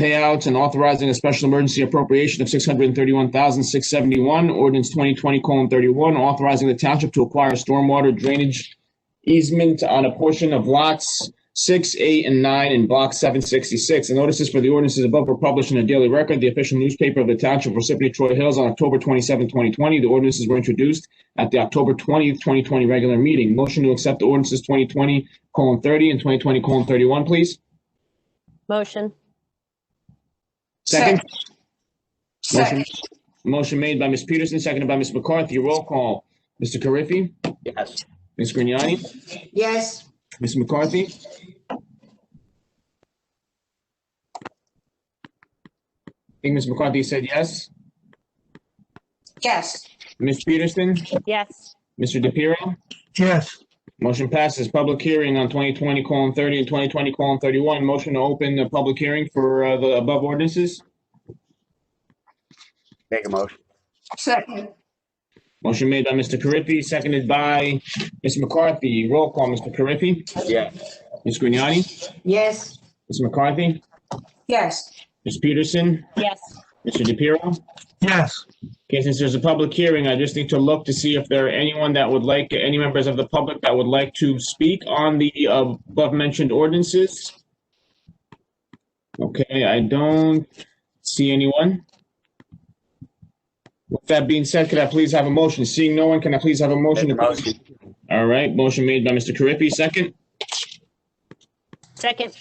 payouts and authorizing a special emergency appropriation of six hundred and thirty-one thousand, six seventy-one, ordinance twenty twenty colon thirty-one, authorizing the township to acquire stormwater drainage easement on a portion of lots six, eight, and nine in block seven sixty-six. The notices for the ordinances above were published in the Daily Record, the official newspaper of the township of Parsippany Troy Hills on October 27, twenty twenty. The ordinances were introduced at the October twentieth, twenty twenty regular meeting. Motion to accept the ordinances twenty twenty colon thirty and twenty twenty colon thirty-one, please. Motion. Second. Motion, Second, motion made by Ms. Peterson, seconded by Ms. McCarthy. Roll call. Mr. Carriffy? yes, Ms. Grignani? yes, Ms. McCarthy? I think Ms. McCarthy said yes. yes, Ms. Peterson? Yes. Mr. DePiero? yes, Motion passes. Public hearing on 2020 colon 30 and 2020 colon 31. Motion to open the public hearing for uh, the above ordinances. make a motion, second, Motion made by Mr. Carriffy, seconded by Ms. McCarthy. Roll call, Mr. Carriffy? yes, Ms. Grignani? yes, Ms. McCarthy? yes, Ms. Peterson, Yes. Mr. DePiero. yes, Okay, since there's a public hearing, I just need to look to see if there are anyone that would like, any members of the public that would like to speak on the uh, above-mentioned ordinances. Okay, I don't see anyone. With that being said, could I please have a motion? Seeing no one, can I please have a motion? make a to close? motion, All right, motion made by Mr. Carriffy, second, Second.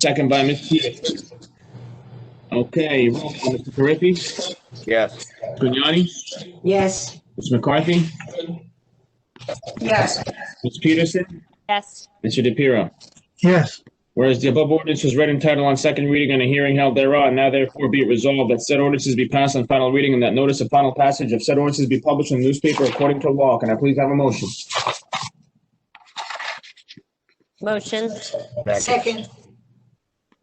second by Ms. Peterson. Okay, roll call, Mr. Carriffy, yes, Grignani, yes, Ms. McCarthy. yes, Ms. Peterson? Yes. Mr. DePiero? yes, Whereas the above ordinance was read in title on second reading and a hearing held thereon, now therefore be it resolved that said ordinances be passed on final reading and that notice of final passage of said ordinances be published in the newspaper according to law. Can I please have a motion? Motion. second, second,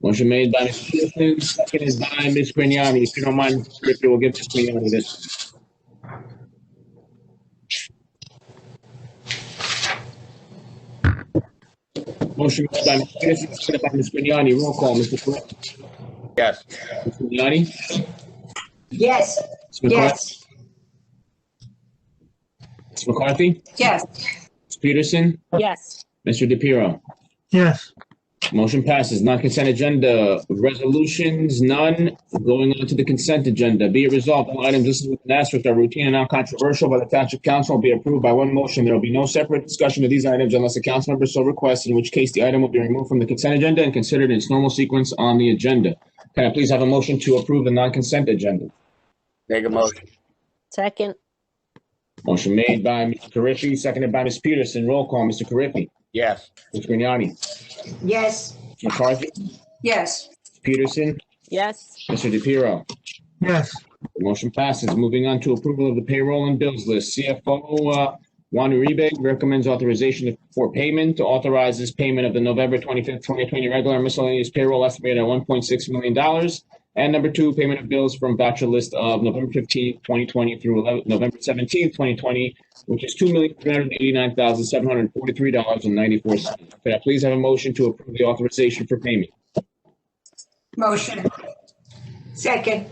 Motion made by Ms. Peterson, seconded by Ms. Grignani. If you don't mind, Griffin, we'll give Ms. Grignani this. Motion made by Ms. Peterson, seconded by Ms. Grignani. Roll call, Mr. Correct. yes, Ms. Grignani? yes, Ms. McCarthy? yes, Ms. McCarthy? yes, Ms. Peterson? Yes. Mr. DePiero? yes, Motion passes. Non-consent agenda, resolutions, none. Going on to the consent agenda. Be it resolved, all items listed with an asterisk are routine and non-controversial by the Township Council and be approved by one motion. There will be no separate discussion of these items unless a council member so requests, in which case the item will be removed from the consent agenda and considered in its normal sequence on the agenda. Can I please have a motion to approve the non-consent agenda? make a motion, Second. Motion made by Mr. Carriffy, seconded by Ms. Peterson. Roll call, Mr. Carriffy. yes, Ms. Grignani. yes, McCarthy, yes, Peterson, Yes. Mr. DePiero. yes, Motion passes. Moving on to approval of the payroll and bills list. CFO uh, Juan Uribe recommends authorization for payment, authorizes payment of the November 25th, 2020 regular miscellaneous payroll estimated at $1.6 million. And number two, payment of bills from voucher list of November 15th, 2020 through 11 November 17th, 2020, which is $2,389,743.94. Could I please have a motion to approve the authorization for payment? motion, second,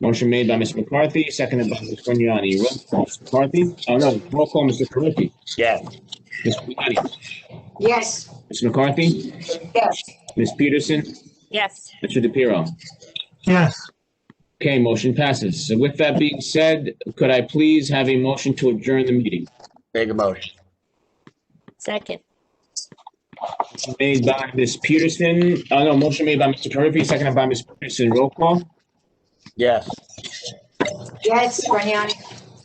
Motion made by Ms. McCarthy, seconded by Ms. Grignani. Roll call, Ms. McCarthy? Oh, no, roll call, Mr. Carriffy. yes, Ms. Grignani? yes, Ms. McCarthy? yes, Ms. Peterson? Yes. Mr. DePiero? yes, Okay, motion passes. So with that being said, could I please have a motion to adjourn the meeting? make a motion, Second. Motion Made by Ms. Peterson, oh, no, motion made by Mr. Carriffy, seconded by Ms. Peterson. Roll call, yes, yes, Grignani,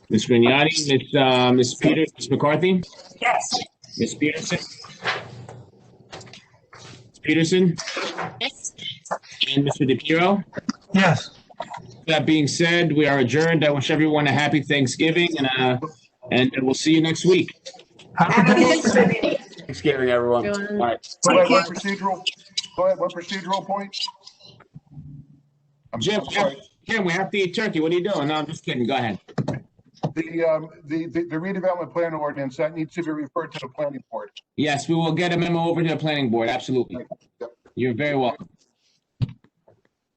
Ms. Grignani, Ms. uh, Ms. Peters, Ms. McCarthy, yes, Ms. Peterson? Ms. Peterson Yes. and Mr. DePiero? yes. That being said, we are adjourned. I wish everyone a happy Thanksgiving and, uh, and we'll see you next week. have a good evening. Thanksgiving, everyone, Everyone. all right. Go ahead, what Thank procedural, go ahead, what procedural point? I'm Jim, I'm Jim, sorry. Jim, we have to eat turkey. What are you doing? No, I'm just kidding. Go ahead. The, um, the, the the redevelopment plan ordinance, that needs to be referred to the planning board. Yes, we will get a memo over to the planning board. Absolutely. You're very welcome.